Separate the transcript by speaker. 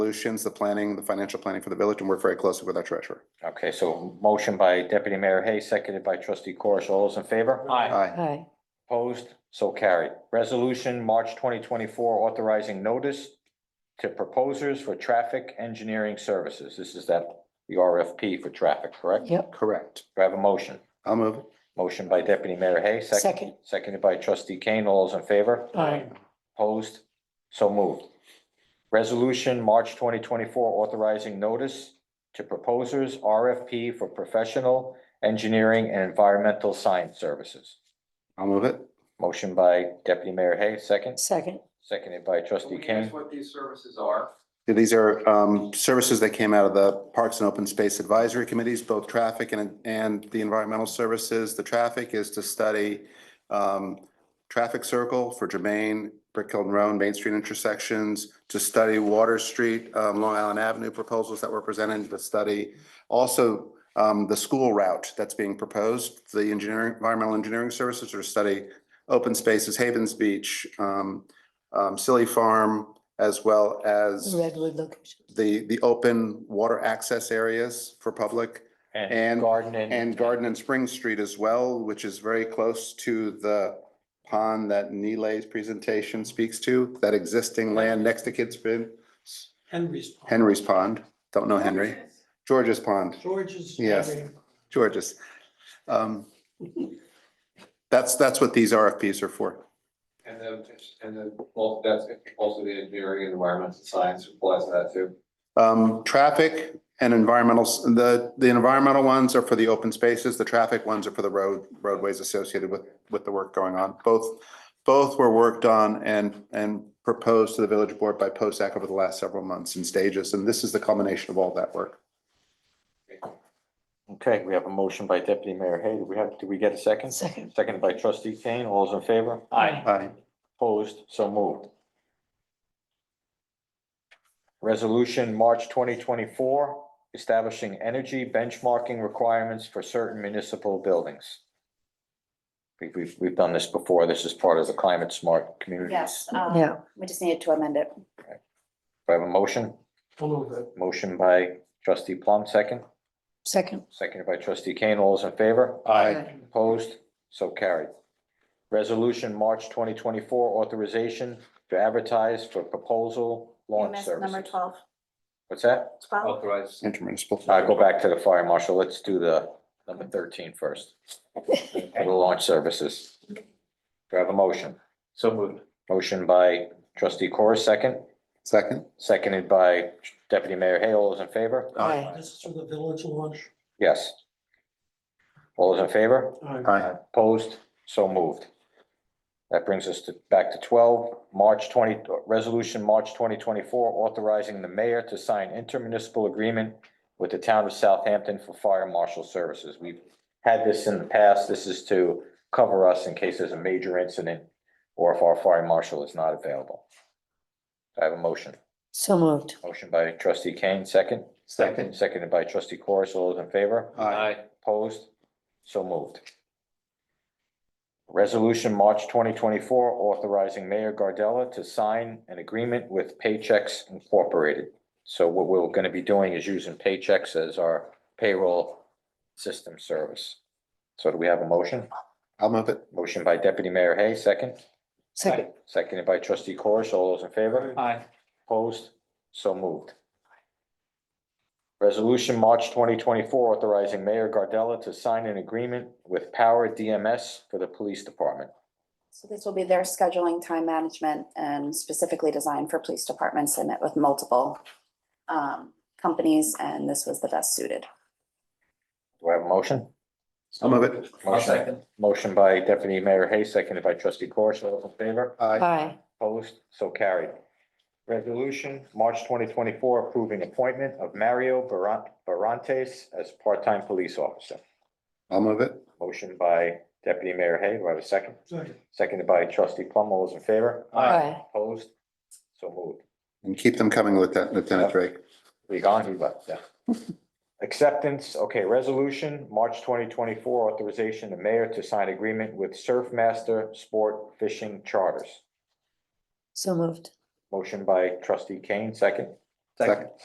Speaker 1: solutions, the planning, the financial planning for the village, and work very closely with our treasurer.
Speaker 2: Okay, so motion by Deputy Mayor Hay, seconded by trustee Corish. All those in favor?
Speaker 1: Aye.
Speaker 3: Aye.
Speaker 2: Opposed? So carried. Resolution, March twenty twenty-four, authorizing notice to proposers for traffic engineering services. This is that, the RFP for traffic, correct?
Speaker 3: Yep.
Speaker 1: Correct.
Speaker 2: Do I have a motion?
Speaker 1: I'll move. it.
Speaker 2: Motion by Deputy Mayor Hay, second,
Speaker 3: Second.
Speaker 2: seconded by trustee Kane. All those in favor?
Speaker 3: Aye.
Speaker 2: Opposed? So moved. Resolution, March twenty twenty-four, authorizing notice to proposers RFP for professional engineering and environmental science services.
Speaker 1: I'll move it.
Speaker 2: Motion by Deputy Mayor Hay, second,
Speaker 3: Second.
Speaker 2: seconded by trustee Kane.
Speaker 4: what these services are.
Speaker 1: These are um, services that came out of the Parks and Open Space Advisory Committees, both traffic and, and the environmental services. The traffic is to study um, traffic circle for Jermaine, Brick Hill Road, Main Street intersections, to study Water Street, um, Long Island Avenue proposals that were presented, to study also um, the school route that's being proposed, the engineering, environmental engineering services, or study open spaces, Havens Beach, um, um, Silly Farm, as well as
Speaker 3: Redwood location.
Speaker 1: the, the open water access areas for public And-
Speaker 2: Garden
Speaker 1: and Garden and Spring Street as well, which is very close to the pond that Neelay's presentation speaks to, that existing land next to Kids Bend,
Speaker 5: Henry's. Pond.
Speaker 1: Henry's Pond, don't know Henry, George's Pond,
Speaker 5: George's.
Speaker 1: Yes.
Speaker 5: Henry.
Speaker 1: George's. Um, That's, that's what these RFPs are for.
Speaker 4: And then, and then also that's also the engineering and environmental science applies to that too.
Speaker 1: Um, traffic and environmental, s- the, the environmental ones are for the open spaces, the traffic ones are for the road, roadways associated with, with the work going on. Both, both were worked on and, and proposed to the village board by POSAC over the last several months in stages, and this is the culmination of all that work.
Speaker 2: Okay, we have a motion by Deputy Mayor Hay. Do we have, do we get a second?
Speaker 3: Second.
Speaker 2: Seconded by trustee Kane. All those in favor?
Speaker 5: Aye.
Speaker 1: Aye.
Speaker 2: Opposed, so moved. Resolution, March twenty twenty-four, establishing energy benchmarking requirements for certain municipal buildings. We've, we've, we've done this before. This is part of the climate smart communities.
Speaker 6: Yes, um,
Speaker 3: Yeah.
Speaker 6: we just needed to amend it.
Speaker 2: Do I have a motion?
Speaker 5: I'll move it.
Speaker 2: Motion by trustee Plum, second,
Speaker 3: Second.
Speaker 2: seconded by trustee Kane. All those in favor?
Speaker 1: Aye.
Speaker 2: Opposed? So carried. Resolution, March twenty twenty-four, authorization to advertise for proposal
Speaker 6: You
Speaker 2: launch
Speaker 6: missed
Speaker 2: services.
Speaker 6: E number twelve.
Speaker 2: What's that?
Speaker 6: Twelve.
Speaker 4: Authorized.
Speaker 1: Intermunicipal.
Speaker 2: Uh, go back to the fire marshal. Let's do the number thirteen first. For the launch services. Do I have a motion?
Speaker 4: So moved.
Speaker 2: Motion by trustee Corr, second,
Speaker 1: Second?
Speaker 2: seconded by deputy mayor Hay. All those in favor?
Speaker 3: Aye.
Speaker 5: This is for the village launch.
Speaker 2: Yes. All those in favor?
Speaker 5: Aye.
Speaker 1: Aye.
Speaker 2: Opposed? So moved. That brings us to, back to twelve, March twenty, resolution, March twenty twenty-four, authorizing the mayor to sign intermunicipal agreement with the town of Southampton for fire marshal services. We've had this in the past. This is to cover us in case there's a major incident or if our fire marshal is not available. I have a motion.
Speaker 3: So moved.
Speaker 2: Motion by trustee Kane, second,
Speaker 1: Second.
Speaker 2: seconded by trustee Corus. All those in favor?
Speaker 1: Aye.
Speaker 2: Opposed? So moved. Resolution, March twenty twenty-four, authorizing Mayor Gardella to sign an agreement with Paychex Incorporated. So what we're gonna be doing is using Paychex as our payroll system service. So do we have a motion?
Speaker 1: I'll move it.
Speaker 2: Motion by Deputy Mayor Hay, second,
Speaker 3: Second.
Speaker 2: seconded by trustee Corish. All those in favor?
Speaker 4: Aye.
Speaker 2: Opposed? So moved. Resolution, March twenty twenty-four, authorizing Mayor Gardella to sign an agreement with Power DMS for the police department.
Speaker 6: So this will be their scheduling, time management, and specifically designed for police departments. I met with multiple um, companies, and this was the best suited.
Speaker 2: Do I have a motion?
Speaker 1: I'll move it.
Speaker 2: Motion, motion by Deputy Mayor Hay, seconded by trustee Corish. All those in favor?
Speaker 1: Aye.
Speaker 3: Aye.
Speaker 2: Opposed? So carried. Resolution, March twenty twenty-four, approving appointment of Mario Baran- Barantes as part-time police officer.
Speaker 1: I'll move it.
Speaker 2: Motion by Deputy Mayor Hay. Do I have a second?
Speaker 5: Second.
Speaker 2: Seconded by trustee Plum. All those in favor?
Speaker 3: Aye.
Speaker 2: Opposed? So moved.
Speaker 1: And keep them coming, Lieutenant Lieutenant Drake.
Speaker 2: We gone, he left, yeah. Acceptance, okay, resolution, March twenty twenty-four, authorization the mayor to sign agreement with Surfmaster Sport Fishing Charters.
Speaker 3: So moved.
Speaker 2: Motion by trustee Kane, second, Second.